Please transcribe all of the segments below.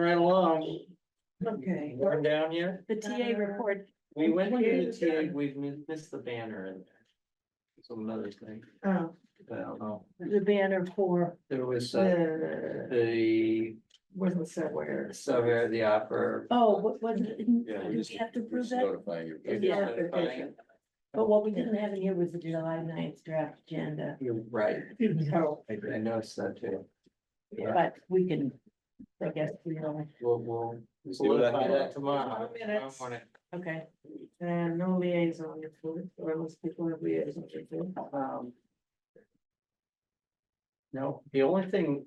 right along, Okay. we're down here. The TA report, We went through the TA, we've mi- missed the banner in there. Some another thing, Oh, I don't know. the banner for, There was uh, the, the, wasn't somewhere. somewhere the opera. oh, what was, it? Yeah, did we just we have to we're prove just that? notifying you. You're Yeah. just notifying- But what we didn't have in here was the July 9th draft agenda, You're right, Oh, I I noticed that too. Yeah. but we can, I guess, we know, We'll, we'll We'll see what solidify that happens. tomorrow. Tomorrow minutes. Tomorrow morning. okay. and no liaison report, or unless people have liaison report. Um, No, the only thing.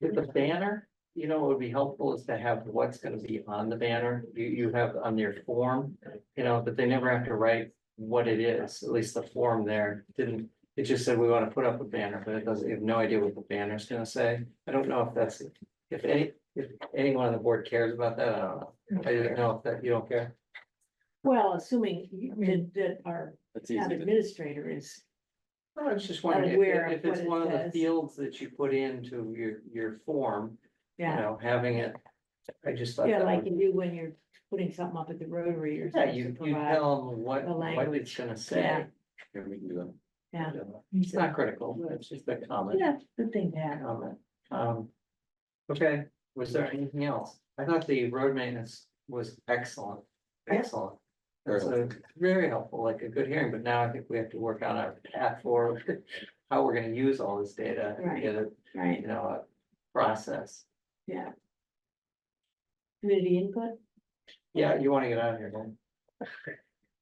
With the banner, you know, what would be helpful is to have what's gonna be on the banner, you, you have on your form. You know, but they never have to write what it is, at least the form there didn't, it just said we wanna put up a banner, but it doesn't, you have no idea what the banner's gonna say. I don't know if that's, if any, if anyone on the board cares about that, I don't know, I didn't know if that, you don't care. Well, assuming you- that, that our That's town easy to- administrator is, No, I was just wondering Aware if- if, of it's what it one of the says. fields that you put into your, your form, you yeah, know, having it. I just thought. yeah, that like would- you do when you're putting something up at the Rotary or Yeah, something. you, to you provide- tell them what, the what it's language. gonna Yeah. say. Yeah, we can do that. Yeah, It's not critical, but it's just a comment, yeah, good thing to have. comment, um. Okay, was there anything else? I thought the road maintenance was excellent, Yeah. excellent. That's a very helpful, like a good hearing, but now I think we have to work on our path forward, how we're gonna use all this data. and Right. Get it, Right, you know, a process. community input, Yeah, you wanna get out of here, man.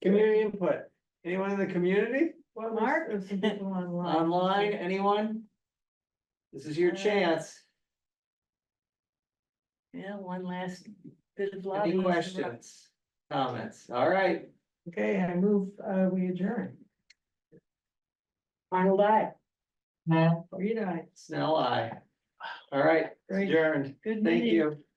Community input, anyone in the community, Well, Mark? there's some people online. online, anyone? This is your chance, yeah, one last bit of lobbying. any questions, comments, all right, Okay, I move, uh, we adjourn. Arnold, I, Reed, I. Snell, I. All right, Great. adjourned, good thank meeting. you.